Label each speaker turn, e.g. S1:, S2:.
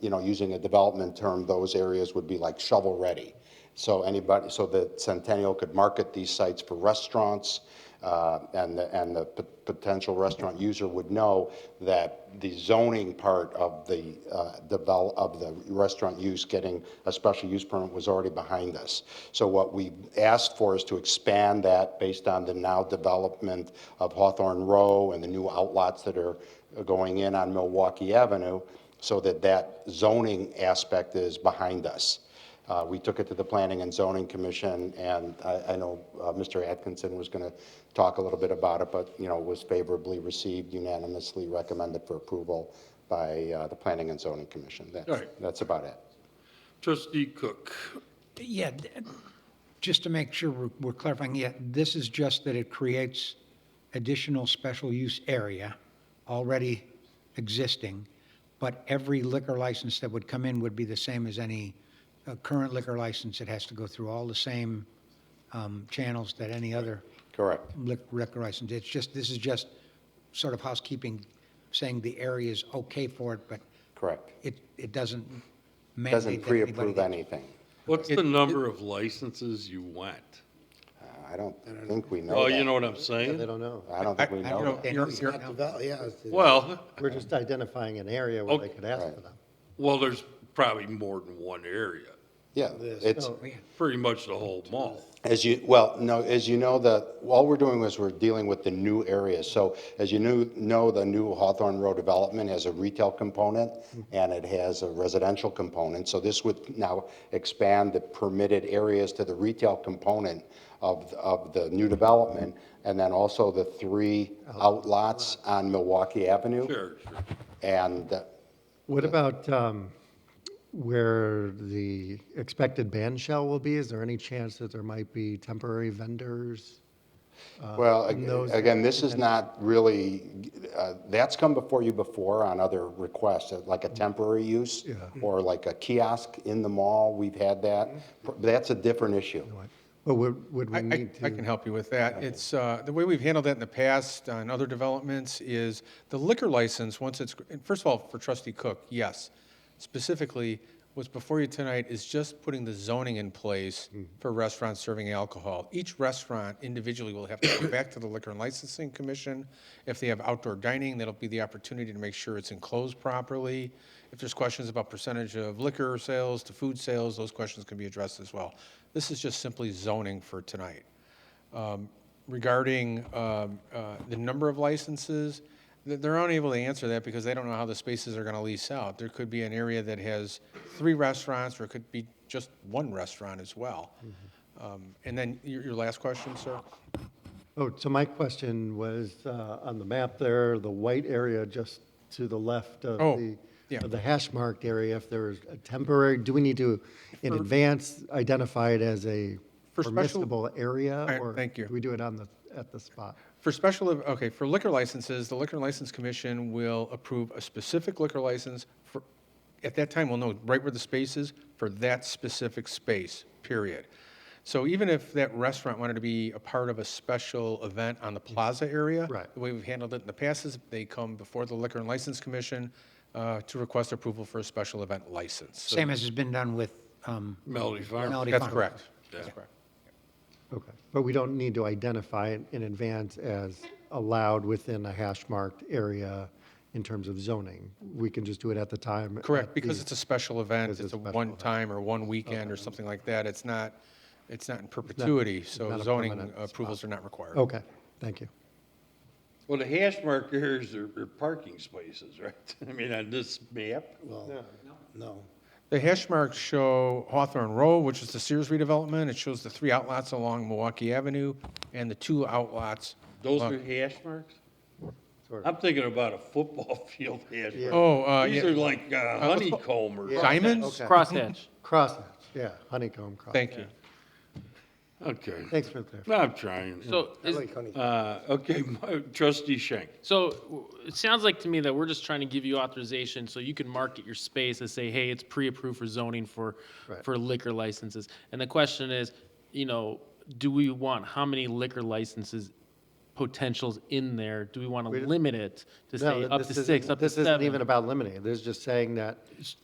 S1: you know, using a development term, those areas would be like shovel-ready. So anybody, so that Centennial could market these sites for restaurants, uh, and, the- and the p- potential restaurant user would know that the zoning part of the, uh, develop, of the restaurant use getting a special use permit was already behind us. So what we asked for is to expand that based on the now development of Hawthorne Row and the new outlots that are going in on Milwaukee Avenue, so that that zoning aspect is behind us. Uh, We took it to the Planning and Zoning Commission, and I I know uh, Mr. Atkinson was going to talk a little bit about it, but, you know, it was favorably received, unanimously recommended for approval by uh, the Planning and Zoning Commission. That's-
S2: All right.
S1: That's about it.
S2: Trustee Cook,
S3: Yeah, th- just to make sure we're- we're clarifying, yeah, this is just that it creates additional special use area already existing, but every liquor license that would come in would be the same as any uh, current liquor license. It has to go through all the same um, channels that any other
S1: Correct.
S3: lic- liquor license. It's just, this is just sort of housekeeping, saying the area is okay for it, but
S1: Correct.
S3: it, it doesn't mandate
S1: Doesn't
S3: that anybody
S1: pre-approve
S3: gets-
S1: anything.
S2: what's the number of licenses you want?
S1: Uh, I don't think we know
S2: Oh, you
S1: that.
S2: know what I'm saying?
S4: They don't know.
S1: I don't think we
S3: I- I
S1: know
S3: don't
S1: that.
S3: know.
S5: You're-
S3: It's
S5: you're-
S3: not out.
S5: yeah, it's-
S2: Well,
S4: We're just identifying an area where they
S2: Okay.
S4: could ask for them.
S2: well, there's probably more than one area,
S1: Yeah, it's,
S5: Oh,
S2: pretty much the whole mall.
S1: As you, well, no, as you know, the, all we're doing is we're dealing with the new areas. So as you knew, know, the new Hawthorne Road development has a retail component and it has a residential component. So this would now expand the permitted areas to the retail component of, of the new development. And then also the three outlots on Milwaukee Avenue.
S2: Sure, sure.
S1: And, uh,
S4: What about um, where the expected ban shell will be? Is there any chance that there might be temporary vendors?
S1: Well, ag-
S4: and those-
S1: again, this is not really, uh, that's come before you before on other requests, uh, like a temporary use or like a kiosk in the mall, we've had that. Pr- That's a different issue.
S4: But would, would
S5: I,
S4: we
S5: I
S4: need
S5: I can
S4: to?
S5: help you with that. It's, uh, the way we've handled that in the past on other developments is the liquor license, once it's, and first of all, for trustee Cook, yes. Specifically, what's before you tonight is just putting the zoning in place for restaurants serving alcohol. Each restaurant individually will have to go back to the Liquor and Licensing Commission. If they have outdoor dining, that'll be the opportunity to make sure it's enclosed properly. If there's questions about percentage of liquor sales to food sales, those questions can be addressed as well. This is just simply zoning for tonight regarding um, uh, the number of licenses, th- they're unable to answer that because they don't know how the spaces are going to lease out. There could be an area that has three restaurants, or it could be just one restaurant as well. Um, And then your your last question, sir?
S4: Oh, so my question was, uh, on the map there, the white area just to the left of
S5: Oh,
S4: the,
S5: yeah.
S4: of the hash marked area, if there's a temporary, do we need to in advance identify it as a
S5: For special-
S4: permissible area?
S5: right,
S4: or
S5: thank you.
S4: Do we do it on the, at the spot?
S5: For special, okay, for liquor licenses, the Liquor License Commission will approve a specific liquor license for, at that time, we'll know right where the space is for that specific space, period. So even if that restaurant wanted to be a part of a special event on the plaza area,
S4: Right.
S5: the way we've handled it in the past is they come before the Liquor and License Commission uh, to request approval for a special event license. So
S3: Same as has been done with um,
S2: Melody Farm.
S3: Melody Farm.
S5: That's correct. That's
S2: Yeah.
S5: correct.
S4: Okay, but we don't need to identify it in advance as allowed within a hash-marked area in terms of zoning. We can just do it at the time.
S5: Correct,
S4: at
S5: because
S4: the-
S5: it's a special event,
S4: because it's
S5: it's a
S4: a special
S5: one-time or one weekend or something like that, it's not, it's not in perpetuity, so
S4: not a
S5: zoning
S4: permanent spot. Oh.
S5: approvals are not required.
S4: Okay, thank you.
S2: Well, the hash markers are are parking spaces, right? I mean, on this map.
S5: Yeah. No.
S2: Well,
S5: No. The hash marks show Hawthorne Row, which is the Sears redevelopment, it shows the three outlots along Milwaukee Avenue and the two outlots.
S2: Those
S5: along-
S2: are hash marks?
S4: Sort
S2: I'm thinking about a football field hash mark.
S5: Oh, uh,
S2: These
S5: yeah.
S2: are like uh,
S5: let's go-
S2: honeycomb or.
S5: Diamonds?
S6: Crosshatch.
S4: Crosshatch, yeah, honeycomb crosshatch.
S5: Thank you.
S2: Okay.
S4: Thanks for the clarification.
S2: I'm trying.
S6: So, is-
S2: Uh, okay, trustee Schenk.
S6: so w- it sounds like to me that we're just trying to give you authorization so you can market your space and say, hey, it's pre-approved for zoning for,
S4: Right.
S6: for liquor licenses. And the question is, you know, do we want how many liquor licenses potentials in there? Do we want to limit it
S4: No,
S6: to say up
S4: this
S6: to
S4: isn't-
S6: six, up to
S4: This isn't even
S6: seven?
S4: about limiting, it. This is just saying that